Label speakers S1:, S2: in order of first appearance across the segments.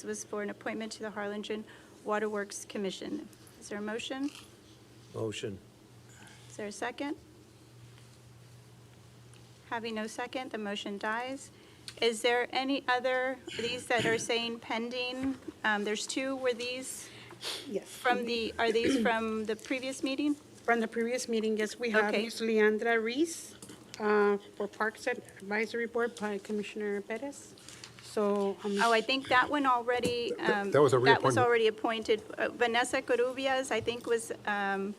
S1: This was for an appointment to the Harlingen Waterworks Commission. Is there a motion?
S2: Motion.
S1: Is there a second? Having no second, the motion dies. Is there any other, these that are saying pending? Um, There's two, were these
S3: Yes.
S1: from the, are these from the previous meeting?
S3: From the previous meeting, yes, we have
S1: Okay.
S3: Ms. Leandra Reese uh, for Parks Advisory Board by Commissioner Perez. So, um,
S1: Oh, I think that one already. um,
S4: that was a
S1: That was
S4: reappointment.
S1: already appointed. Uh, Vanessa Corubias, I think, was um,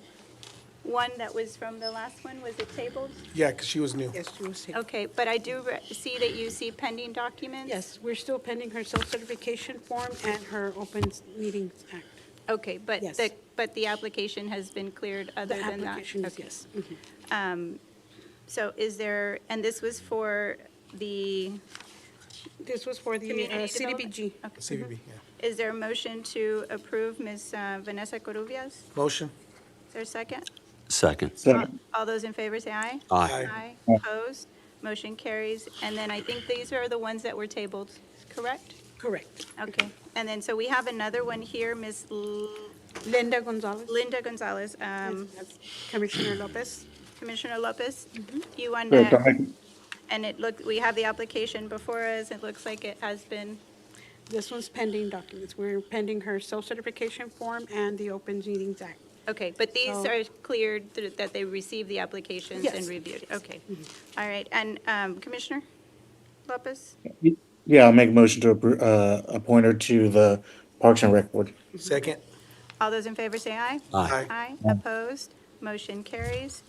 S1: one that was from the last one. Was it tabled?
S5: Yeah, because she was new.
S3: yes, you will see.
S1: Okay, but I do re- see that you see pending documents?
S3: Yes, we're still pending her self-certification form and her Open Meetings Act.
S1: Okay, but
S3: Yes.
S1: the, but the application has been cleared other
S3: The
S1: than that?
S3: application is
S1: Okay.
S3: yes. Mhm.
S1: So is there, and this was for the,
S3: This was for the uh,
S1: Community mm-hmm.
S3: CDBG.
S5: CVB, yeah.
S1: is there a motion to approve Ms. uh, Vanessa Corubias? Is
S5: Motion?
S1: there a second?
S6: Second.
S1: All those in favor say aye.
S5: Aye.
S1: Aye, opposed, motion carries. And then I think these are the ones that were tabled, correct?
S3: Correct.
S1: Okay, and then, so we have another one here, Ms. L-
S3: Linda Gonzalez.
S1: Linda Gonzalez. Um,
S3: Commissioner Lopez.
S1: Commissioner Lopez,
S3: Mm-hmm.
S1: you want
S7: Yes, I
S1: to,
S7: make,
S1: and it looked, we have the application before us, it looks like it has been,
S3: This one's pending documents. We're pending her self-certification form and the Open Meetings Act.
S1: okay, but these
S3: So-
S1: are cleared th- that they received the applications and
S3: Yes. Mm-hmm.
S1: reviewed, okay. All right, and um, Commissioner Lopez,
S7: yeah, I'll make a motion to appro- uh, appoint her to the Parks and Rec Board.
S5: Second?
S1: all those in favor say aye.
S6: Aye.
S1: Aye, opposed, motion carries.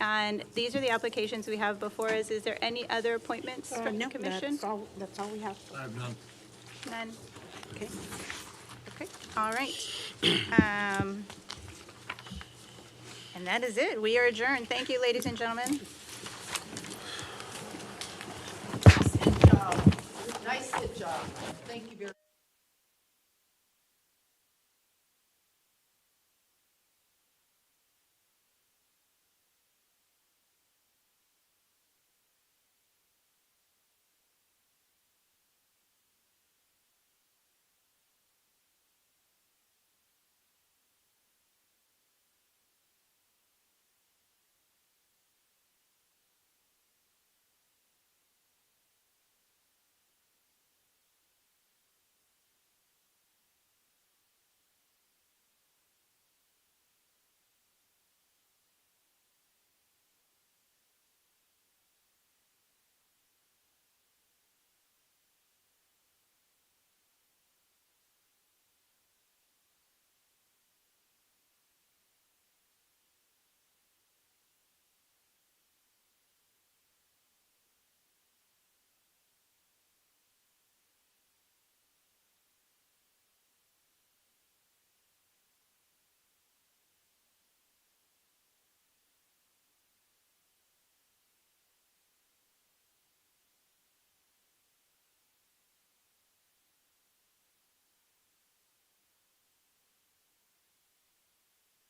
S1: And these are the applications we have before us, is there any other appointments
S3: Uh,
S1: from the
S3: no,
S1: commission?
S3: That's all, that's all we have.
S1: None,
S3: Okay.
S1: okay, all right. Um, And that is it, we are adjourned, thank you, ladies and gentlemen.
S8: Nice job. Thank you very